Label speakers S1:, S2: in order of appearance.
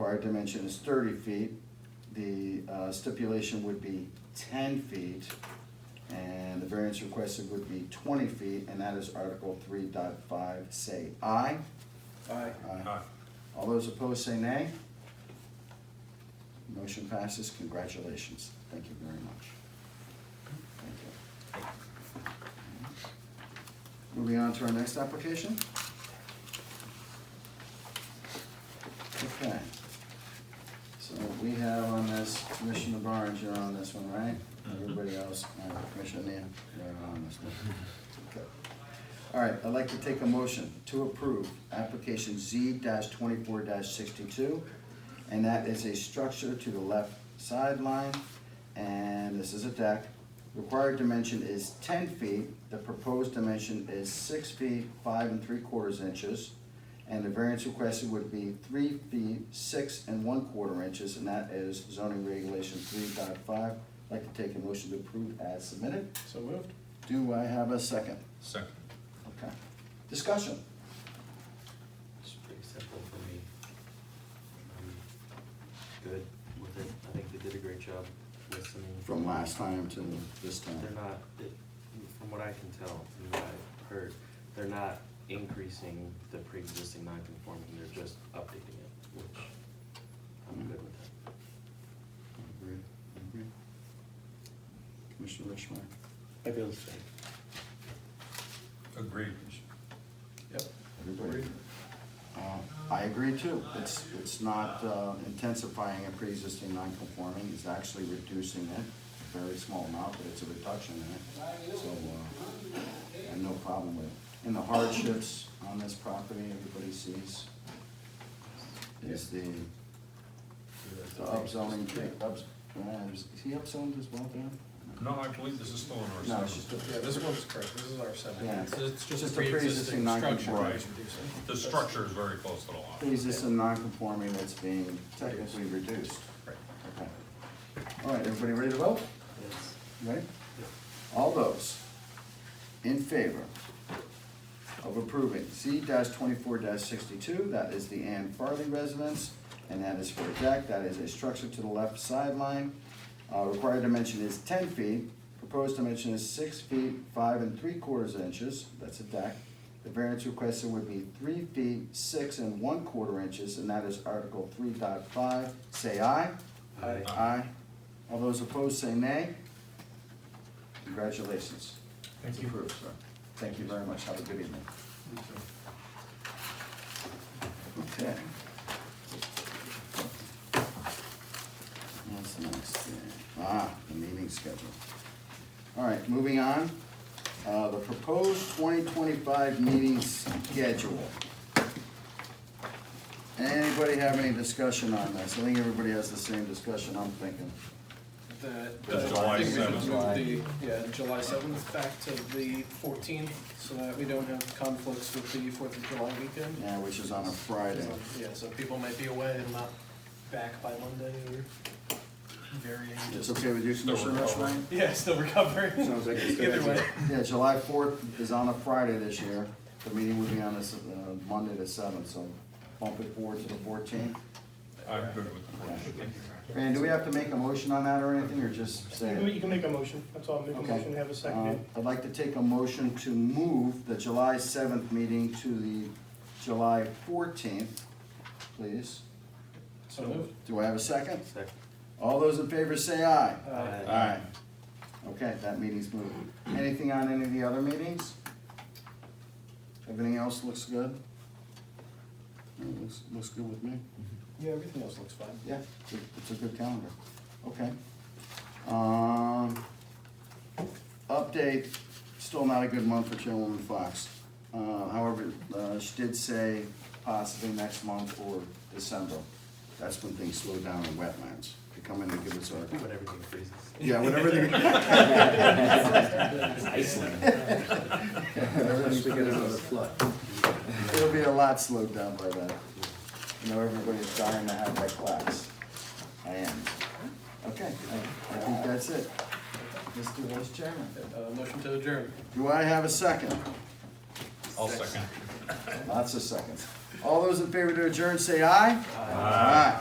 S1: our dimension is thirty feet. The uh, stipulation would be ten feet, and the variance requested would be twenty feet, and that is Article three dot five, say aye.
S2: Aye.
S3: Aye.
S1: All those opposed say nay. Motion passes, congratulations, thank you very much. Thank you. Moving on to our next application. Okay. So we have on this, Commissioner Barnes, you're on this one, right? Everybody else, uh, Commissioner Nan, you're on this one. Okay. All right, I'd like to take a motion to approve application Z twenty-four sixty-two. And that is a structure to the left sideline, and this is a deck. Required dimension is ten feet, the proposed dimension is six feet, five and three quarters inches. And the variance requested would be three feet, six and one quarter inches, and that is zoning regulation three I'd like to take a motion to approve as submitted.
S2: So moved.
S1: Do I have a second?
S3: Second.
S1: Okay. Discussion.
S4: It's pretty simple for me. I'm Good with it, I think they did a great job listening.
S1: From last time to this time.
S4: They're not, it- from what I can tell, and what I've heard, they're not increasing the pre-existing non-conforming, they're just updating it, which I'm good with that.
S1: Agreed, agreed. Commissioner Richmond.
S4: I feel the same.
S3: Agreed.
S2: Yep.
S1: Everybody. Uh, I agree too. It's, it's not uh, intensifying a pre-existing non-conforming, it's actually reducing it. Very small amount, but it's a reduction in it. So, uh, I have no problem with it. And the hardships on this property, everybody sees, is the, the upzoning, ups, uh, is he upzoned as well, Dan?
S3: No, I believe this is still in
S1: No,
S3: our
S1: it's
S3: section.
S1: just a
S2: Yeah, this one's correct, this is our seven.
S1: Yeah.
S2: So it's just a
S1: Just a
S2: pre-existing
S1: pre-existing
S2: structure.
S1: non-conforming.
S2: that he's reducing.
S3: The structure is very close to the lot.
S1: pre-existing non-conforming that's being technically reduced.
S2: Right.
S1: Okay. All right, everybody ready to vote?
S4: Yes.
S1: Ready? All those in favor of approving C twenty-four sixty-two, that is the Ann Farley residence, and that is for a deck, that is a structure to the left sideline. Uh, required dimension is ten feet, proposed dimension is six feet, five and three quarters inches, that's a deck. The variance requested would be three feet, six and one quarter inches, and that is Article three dot five, say aye.
S4: Aye.
S1: Aye. All those opposed say nay. Congratulations. It's approved, sir. Thank you very much. Have a good evening. Okay. What's the next thing? Ah, the meeting schedule. All right, moving on. Uh, the proposed twenty twenty-five meeting schedule. Anybody have any discussion on this? I think everybody has the same discussion I'm thinking.
S2: That-
S3: That's
S2: that-
S3: July
S2: I think we could
S1: 7th.
S2: move the- Yeah, July seventh back to the fourteenth, so that we don't have conflicts with the Fourth of July weekend.
S1: Yeah, which is on a Friday.
S2: Yeah, so people might be away and not back by Monday or varying.
S1: It's okay with you, Commissioner Rushmeyer?
S2: Yeah, still recovering.
S1: Sounds like it's
S2: Either way.
S1: Yeah, July fourth is on a Friday this year. The meeting would be on this, uh, Monday the seventh, so bump it forward to the fourteenth.
S3: I'm good with the motion.
S1: And do we have to make a motion on that or anything, or just say?
S5: You can-
S1: it?
S5: You can make a motion, that's all, make a
S1: Okay.
S5: motion, have a
S1: Uh,
S5: second.
S1: I'd like to take a motion to move the July seventh meeting to the July fourteenth, please.
S2: So moved.
S1: Do I have a second?
S4: Second.
S1: All those in favor say aye.
S2: Uh,
S1: Aye. Okay, that meeting's moved. Anything on any of the other meetings? Everything else looks good? It Looks, looks good with me.
S2: Yeah, everything else looks fine.
S1: Yeah, it's a- it's a good calendar. Okay. Um, update, still not a good month for Chairwoman Fox. Uh, however, uh, she did say possibly next month or December. That's when things slow down in wetlands. They come in and give us our,
S4: When everything freezes.
S1: yeah, whatever they.
S4: Iceland.
S1: Unless we get another flood. It'll be a lot slowed down by then. You know, everybody's dying to have that class. I am. Okay, I, I think that's it. Mr. Vice Chairman.
S2: Uh, motion to adjourn.
S1: Do I have a second?
S3: I'll second.
S1: Lots of seconds. All those in favor to adjourn, say aye. Aye.